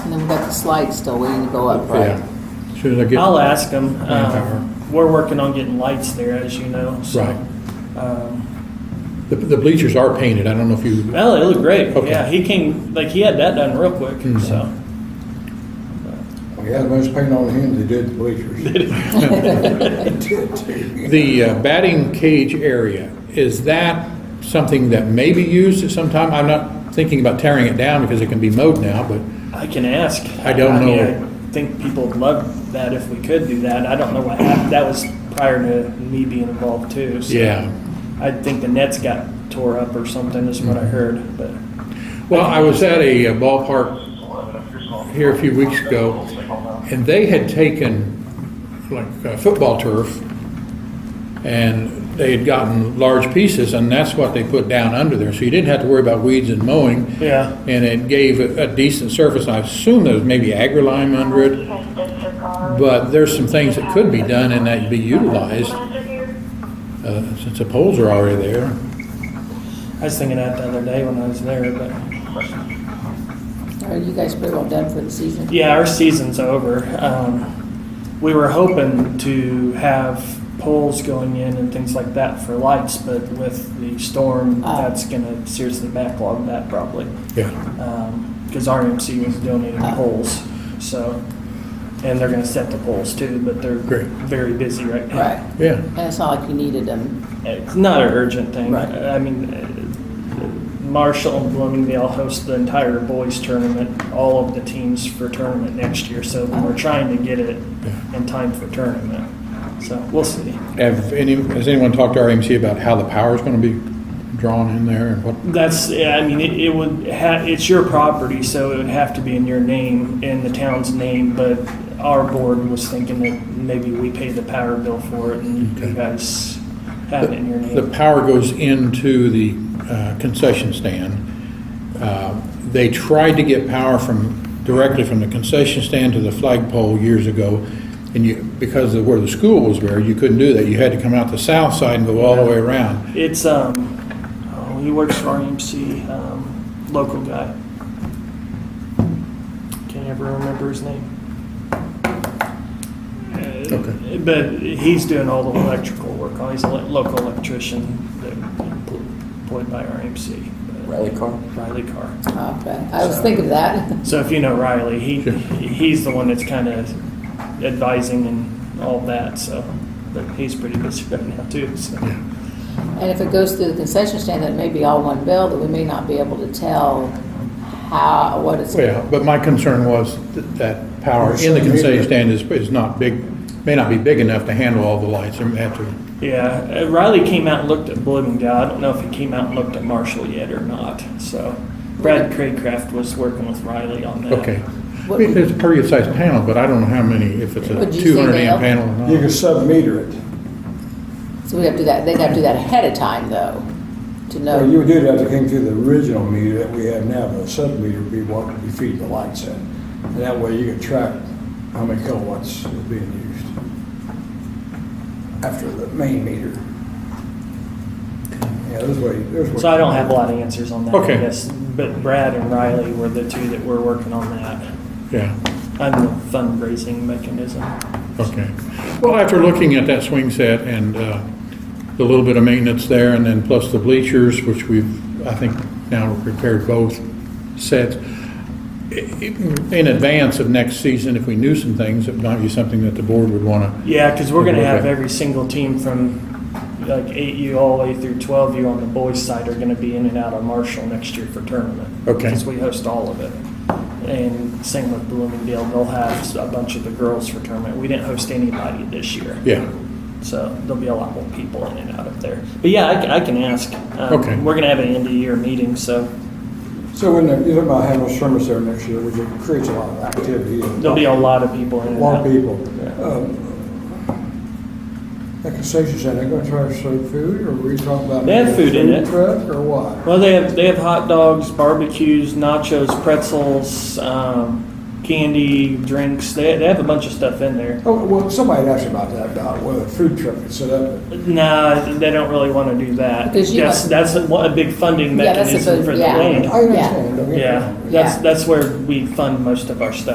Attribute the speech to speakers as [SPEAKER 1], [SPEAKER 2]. [SPEAKER 1] slide's still waiting to go up, right?
[SPEAKER 2] Yeah. Soon as I get.
[SPEAKER 3] I'll ask them.
[SPEAKER 2] Manpower.
[SPEAKER 3] We're working on getting lights there, as you know, so.
[SPEAKER 2] Right.
[SPEAKER 3] um,
[SPEAKER 2] The, the bleachers are painted. I don't know if you.
[SPEAKER 3] Well, it looked great.
[SPEAKER 2] Okay. Mm-hmm.
[SPEAKER 3] Yeah, he came, like, he had that done real quick, so.
[SPEAKER 4] We had a bunch of paint on him, they did the bleachers.
[SPEAKER 2] The uh, batting cage area, is that something that may be used at some time? I'm not thinking about tearing it down because it can be mowed now, but
[SPEAKER 3] I can ask.
[SPEAKER 2] I don't
[SPEAKER 3] mean,
[SPEAKER 2] know.
[SPEAKER 3] I think people would love that if we could do that. I don't know what happened. That was prior to me being involved too. So
[SPEAKER 2] Yeah.
[SPEAKER 3] I think the nets got tore up or something is
[SPEAKER 2] Mm-hmm.
[SPEAKER 3] what I heard, but
[SPEAKER 2] Well, I was at a uh, ballpark here a few weeks ago, and they had taken like uh, football turf, and they had gotten large pieces, and that's what they put down under there. So you didn't have to worry about weeds and mowing.
[SPEAKER 3] Yeah.
[SPEAKER 2] And it gave a a decent surface. I assume there was maybe agrilime under it, but there's some things that could be done and that could be utilized uh, since the poles are already there.
[SPEAKER 3] I was thinking that the other day when I was there, but
[SPEAKER 1] Are you guys pretty well done for the season?
[SPEAKER 3] yeah, our season's over. Um, we were hoping to have poles going in and things like that for lights, but with the storm,
[SPEAKER 1] Oh.
[SPEAKER 3] that's going to seriously backlog that probably. um,
[SPEAKER 2] Yeah.
[SPEAKER 3] because RMC was donating poles, so, and they're gonna set the poles too, but they're
[SPEAKER 2] Great.
[SPEAKER 3] very busy right now.
[SPEAKER 1] Right,
[SPEAKER 2] Yeah.
[SPEAKER 1] and it's not like you needed them,
[SPEAKER 3] It's not an urgent thing.
[SPEAKER 1] Right.
[SPEAKER 3] I mean, uh, Marshall and Bloomingdale host the entire boys tournament, all of the teams for tournament next year, so we're trying to get it in time for tournament. So we'll see.
[SPEAKER 2] Have any, has anyone talked to RMC about how the power's gonna be drawn in there and what?
[SPEAKER 3] That's, yeah, I mean, it, it would ha, it's your property, so it would have to be in your name, in the town's name, but our board was thinking that maybe we pay the power bill for it and you guys have it in your
[SPEAKER 2] The
[SPEAKER 3] name.
[SPEAKER 2] power goes into the uh, concession stand. Uh, They tried to get power from, directly from the concession stand to the flagpole years ago. And you, because of where the school was there, you couldn't do that. You had to come out the south side and go all the way around.
[SPEAKER 3] It's, um, oh, he works for RMC, um, local guy. Can't ever remember his name. Uh,
[SPEAKER 2] Okay.
[SPEAKER 3] But he's doing all the electrical work, Oh, he's a le- local electrician that employed by RMC. but-
[SPEAKER 5] Rally car?
[SPEAKER 3] Riley Carr.
[SPEAKER 1] okay, uh, I was thinking of that.
[SPEAKER 3] So if you know Riley, he
[SPEAKER 2] Sure.
[SPEAKER 3] he's the one that's kind of advising and all that. So, but he's pretty busy right now too. So.
[SPEAKER 1] And if it goes through the concession stand, that may be all one bill, that we may not be able to tell how, what it's.
[SPEAKER 2] Well, but my concern was that- that power in the concession stand is, is not big, may not be big enough to handle all the lights. They may have to
[SPEAKER 3] Yeah, uh, Riley came out and looked at Bloomingdale. I don't know if he came out and looked at Marshall yet or not. So, Brad Craycraft was working with Riley on that.
[SPEAKER 2] Okay. I
[SPEAKER 1] What-
[SPEAKER 2] mean, There's a pretty good sized panel, but I don't know how many, if it's a
[SPEAKER 1] Would you say
[SPEAKER 2] two hundred amp
[SPEAKER 1] they
[SPEAKER 2] panel or not.
[SPEAKER 4] You can sub-meter it.
[SPEAKER 1] So we have to do that, they gotta do that ahead of time though, to
[SPEAKER 4] Well, you
[SPEAKER 1] know.
[SPEAKER 4] would do that to came through the original meter that we have now, but a sub-meter would be what you feed the lights in. And that way you could track how many kilowatts is being used after the main meter. Yeah, there's way, there's way.
[SPEAKER 3] So I don't have a lot of answers on that.
[SPEAKER 2] Okay.
[SPEAKER 3] I guess, but Brad and Riley were the two that were working on that.
[SPEAKER 2] Yeah,
[SPEAKER 3] I'm the fundraising mechanism.
[SPEAKER 2] okay. Well, after looking at that swing set and uh, the little bit of maintenance there, and then plus the bleachers, which we've, I think now repaired both sets, i- i- in advance of next season, if we knew some things, it might be something that the board would want to.
[SPEAKER 3] Yeah, because we're going to have
[SPEAKER 2] Okay.
[SPEAKER 3] every single team from like 8U all the way through 12U on the boys' side are going to be in and out of Marshall next year for tournament.
[SPEAKER 2] Okay.
[SPEAKER 3] Because we host all of it. And same with Bloomingdale, they'll have a bunch of the girls for tournament. We didn't host anybody this year.
[SPEAKER 2] Yeah,
[SPEAKER 3] So there'll be a lot more people in and out of there. But yeah, I, can- I can ask. Um,
[SPEAKER 2] Okay.
[SPEAKER 3] We're going to have an end of year meeting, so
[SPEAKER 4] So when the- you're talking about having a service there next year, which it creates a lot of activity. and-
[SPEAKER 3] there'll be a lot of people in
[SPEAKER 4] A
[SPEAKER 3] and
[SPEAKER 4] lot
[SPEAKER 3] out.
[SPEAKER 4] of people. Um, That concession stand, they gonna try to serve food, or we talking about?
[SPEAKER 3] They have food in it.
[SPEAKER 4] Truck, or what?
[SPEAKER 3] Well, they have they have hot dogs, barbecues, nachos, pretzels, um, candy, drinks. They, they have a bunch of stuff in there.
[SPEAKER 4] Oh, well, somebody asked about that, about whether a food truck could set up.
[SPEAKER 3] Nah, they don't really want to do that.
[SPEAKER 1] Because you
[SPEAKER 3] That's
[SPEAKER 1] want-
[SPEAKER 3] that's a, a big funding
[SPEAKER 1] Yeah, that's a
[SPEAKER 3] mechanism
[SPEAKER 1] big-
[SPEAKER 3] for the
[SPEAKER 1] yeah.
[SPEAKER 4] I
[SPEAKER 3] land.
[SPEAKER 4] understand. don't get me
[SPEAKER 3] Yeah,
[SPEAKER 4] wrong.
[SPEAKER 3] that's
[SPEAKER 1] Yeah.
[SPEAKER 3] that's where we fund most of our stuff.